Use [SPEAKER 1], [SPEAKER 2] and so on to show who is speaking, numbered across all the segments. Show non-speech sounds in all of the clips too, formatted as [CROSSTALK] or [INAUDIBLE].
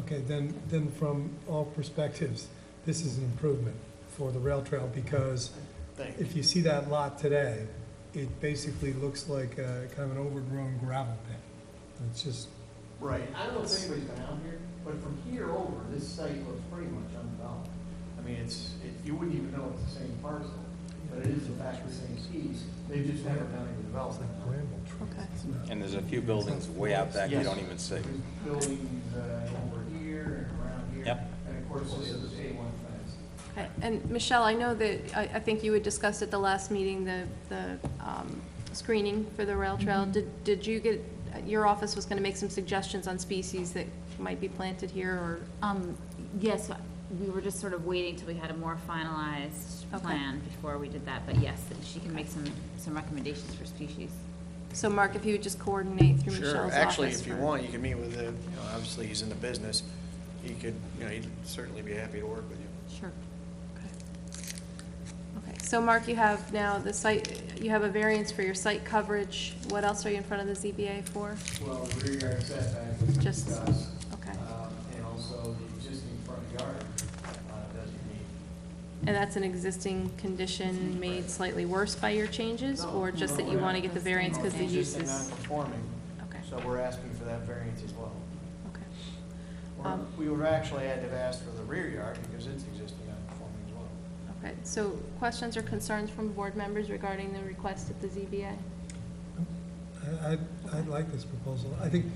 [SPEAKER 1] Okay, then, then from all perspectives, this is an improvement for the rail trail because
[SPEAKER 2] Thank
[SPEAKER 1] if you see that lot today, it basically looks like a kind of an overgrown gravel pit. It's just,
[SPEAKER 2] Right.
[SPEAKER 3] I don't know if anybody's been out here, but from here over, this site looks pretty much undeveloped.
[SPEAKER 2] I mean, it's, it, you wouldn't even know it's the same parcel, but it is in fact the same piece. They've just never done any
[SPEAKER 1] it's
[SPEAKER 2] development.
[SPEAKER 1] like bramble
[SPEAKER 4] Okay.
[SPEAKER 1] trees.
[SPEAKER 5] And there's a few buildings way out back you
[SPEAKER 2] Yes.
[SPEAKER 5] don't even see.
[SPEAKER 2] There's buildings, uh, over here and around here.
[SPEAKER 5] Yep.
[SPEAKER 2] And of course, this is A one fence.
[SPEAKER 4] Okay, And Michelle, I know that, I, I think you had discussed at the last meeting the, the um, screening for the rail trail. Did, did you get, your office was gonna make some suggestions on species that might be planted here or?
[SPEAKER 6] Um, yes, we were just sort of waiting till we had a more finalized
[SPEAKER 4] Okay.
[SPEAKER 6] plan before we did that, but yes, she can make some, some recommendations for species.
[SPEAKER 4] So Mark, if you would just coordinate through Michelle's
[SPEAKER 2] Sure,
[SPEAKER 4] office.
[SPEAKER 2] actually, if you
[SPEAKER 4] for-
[SPEAKER 2] want, you can meet with the, you know, obviously, he's in the business. He could, you know, he'd certainly be happy to work with you.
[SPEAKER 4] Sure. Okay. Okay, so Mark, you have now the site, you have a variance for your site coverage. What else are you in front of the ZBA for?
[SPEAKER 2] Well, the rear yard setback was
[SPEAKER 4] Just-
[SPEAKER 2] discussed.
[SPEAKER 4] okay.
[SPEAKER 2] um, And also the existing front yard uh, doesn't meet.
[SPEAKER 4] And that's an existing condition made slightly worse by your changes, or just that you want to get the variance because the use
[SPEAKER 2] Existing
[SPEAKER 4] is?
[SPEAKER 2] non-conforming,
[SPEAKER 4] Okay,
[SPEAKER 2] so we're asking for that variance as well.
[SPEAKER 4] okay,
[SPEAKER 2] Or
[SPEAKER 4] Um,
[SPEAKER 2] we would actually had to have asked for the rear yard because it's existing non-conforming as well.
[SPEAKER 4] okay. So questions or concerns from board members regarding the request at the ZBA?
[SPEAKER 1] I, I'd, I'd like this proposal. I think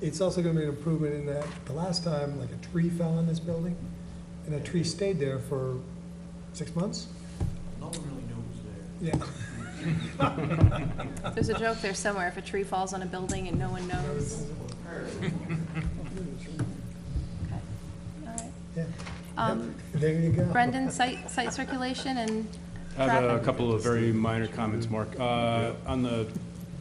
[SPEAKER 1] it's also gonna be an improvement in that the last time, like, a tree fell on this building, and a tree stayed there for six months?
[SPEAKER 2] No one really knew it was there.
[SPEAKER 1] Yeah.
[SPEAKER 4] There's a joke there somewhere, if a tree falls on a building and no one knows. Okay, all right.
[SPEAKER 1] Yeah.
[SPEAKER 4] Um,
[SPEAKER 1] There you go.
[SPEAKER 4] Brendan, site, site circulation and
[SPEAKER 7] I have a
[SPEAKER 4] Traffic.
[SPEAKER 7] couple of very minor comments, Mark. Uh, On the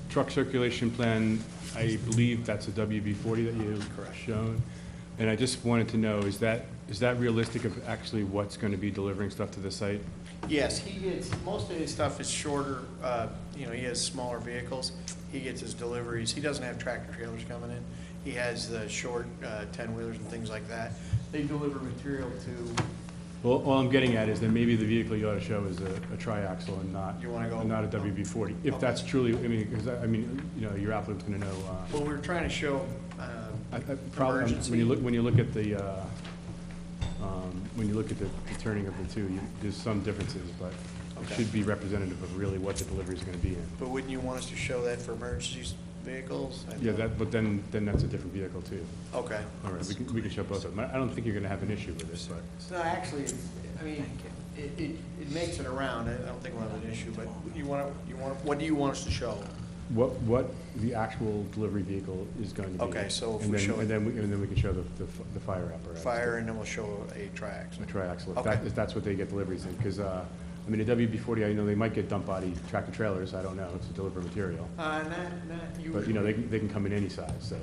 [SPEAKER 7] truck circulation plan, I believe that's a WB40 that you shown. And I just wanted to know, is that, is that realistic of actually what's going to be delivering stuff to the site?
[SPEAKER 2] Yes, he gets, most of his stuff is shorter, uh, you know, he has smaller vehicles. He gets his deliveries. He doesn't have tractor trailers coming in. He has the short uh, ten-wheelers and things like that. They deliver material to,
[SPEAKER 7] Well, all I'm getting at is that maybe the vehicle you ought to show is a a triaxle and not,
[SPEAKER 2] You wanna go-
[SPEAKER 7] and not a WB40. If that's truly, I mean, because, I I mean, you know, your applicant's going to know. uh,
[SPEAKER 2] well, we we're trying to show, um,
[SPEAKER 7] I- I- Probably, um, when
[SPEAKER 2] Emergency.
[SPEAKER 7] you look, when you look at the, uh, um, when you look at the the turning of the two, you- there's some differences, but it
[SPEAKER 2] Okay.
[SPEAKER 7] should be representative of really what the delivery is going to be in.
[SPEAKER 2] but wouldn't you want us to show that for emergency vehicles? I
[SPEAKER 7] Yeah,
[SPEAKER 2] don't-
[SPEAKER 7] that, but then, then that's a different vehicle too.
[SPEAKER 2] Okay.
[SPEAKER 7] All right, we can, we can show both of them. I I don't think you're going to have an issue with this, but.
[SPEAKER 2] So no, actually, it's- I mean, it, it, it makes it around. I I don't think we'll have an issue, but you want to, you want, what do you want us to show?
[SPEAKER 7] What, what the actual delivery vehicle is going to be.
[SPEAKER 2] Okay, so if
[SPEAKER 7] And
[SPEAKER 2] we
[SPEAKER 7] then-
[SPEAKER 2] show it-
[SPEAKER 7] And then, we- and then we can show the, the f- the fire apparatus.
[SPEAKER 2] Fire, and then we'll show a triax.
[SPEAKER 7] A triaxle, if
[SPEAKER 2] Okay.
[SPEAKER 7] that, if that's what they get deliveries in, because, I mean, a WB forty, I know they might get dump body tractor trailers, I don't know, to deliver material.
[SPEAKER 2] Uh, not, not
[SPEAKER 7] But, you know, they,
[SPEAKER 2] usually.
[SPEAKER 7] can- they can come in any size, so.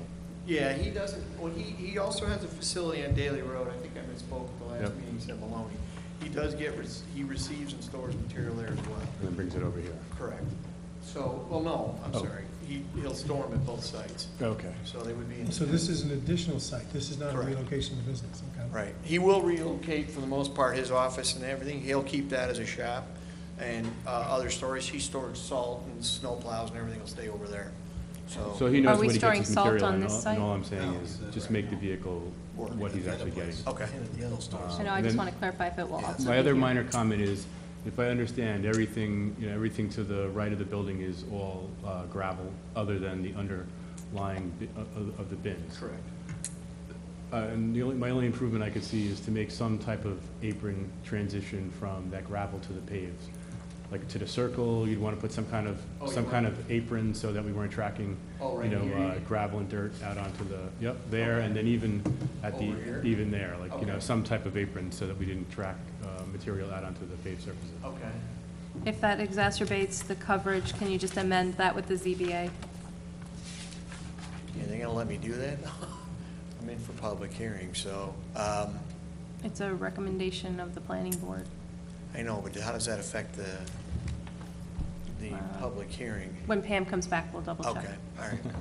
[SPEAKER 2] Yeah, he doesn't, well, he, he also has a facility on Daly Road. I think I misspoke at the last
[SPEAKER 7] Yep.
[SPEAKER 2] meeting, he said Maloney. He does get, rec- he receives and stores material there as well.
[SPEAKER 7] And then brings it over here.
[SPEAKER 2] Correct. So, well, no, I'm
[SPEAKER 7] Oh.
[SPEAKER 2] sorry. He, he'll store them at both sites,
[SPEAKER 7] Okay.
[SPEAKER 2] so they would be in.
[SPEAKER 1] So this is an additional site, this is not a
[SPEAKER 2] Correct.
[SPEAKER 1] relocation of business, okay?
[SPEAKER 2] Right. He will relocate for the most part, his office and everything. He'll keep that as a shop and uh, other storage. He stores salt and snow plows and everything will stay over there.
[SPEAKER 7] So
[SPEAKER 2] So,
[SPEAKER 7] he knows
[SPEAKER 4] Are we
[SPEAKER 7] when he gets
[SPEAKER 4] storing
[SPEAKER 7] his
[SPEAKER 4] salt
[SPEAKER 7] material,
[SPEAKER 4] on
[SPEAKER 7] and
[SPEAKER 4] this
[SPEAKER 7] all,
[SPEAKER 4] site?
[SPEAKER 7] and all I'm saying
[SPEAKER 2] Oh. No, Oh,
[SPEAKER 7] is,
[SPEAKER 2] it's
[SPEAKER 7] just
[SPEAKER 2] right
[SPEAKER 7] make the
[SPEAKER 2] now.
[SPEAKER 7] vehicle what he's actually getting.
[SPEAKER 2] okay.
[SPEAKER 7] Uh,
[SPEAKER 4] I know, I just
[SPEAKER 7] and then
[SPEAKER 4] want to clarify if it will also
[SPEAKER 7] My
[SPEAKER 4] be
[SPEAKER 7] other
[SPEAKER 4] here.
[SPEAKER 7] minor comment is, if I understand, everything, you know, everything to the right of the building is all uh, gravel, other than the underlying bi- uh, of, of the bins.
[SPEAKER 2] Correct.
[SPEAKER 7] Uh, And the only, my only improvement I could see is to make some type of apron transition from that gravel to the paves. Like to the circle, you'd want to put some kind of,
[SPEAKER 2] Oh, you
[SPEAKER 7] some
[SPEAKER 2] want-
[SPEAKER 7] kind of apron so that we weren't tracking,
[SPEAKER 2] Oh,
[SPEAKER 7] you
[SPEAKER 2] right
[SPEAKER 7] know,
[SPEAKER 2] here,
[SPEAKER 7] uh,
[SPEAKER 2] yeah.
[SPEAKER 7] gravel and dirt out onto the, yep, there, and then even at the,
[SPEAKER 2] Over here?
[SPEAKER 7] even there, like, you know,
[SPEAKER 2] Okay.
[SPEAKER 7] some type of apron so that we didn't track uh, material out onto the paved surfaces.
[SPEAKER 2] Okay.
[SPEAKER 4] If that exacerbates the coverage, can you just amend that with the ZBA?
[SPEAKER 2] Yeah, they're gonna let me do that? [LAUGHS] I'm in for public hearing, so, um,
[SPEAKER 4] It's a recommendation of the planning board.
[SPEAKER 2] I know, but how does that affect the, the
[SPEAKER 4] Uh,
[SPEAKER 2] public hearing?
[SPEAKER 4] When Pam comes back, Uh, we'll double check. [LAUGHS]
[SPEAKER 2] Okay, all right.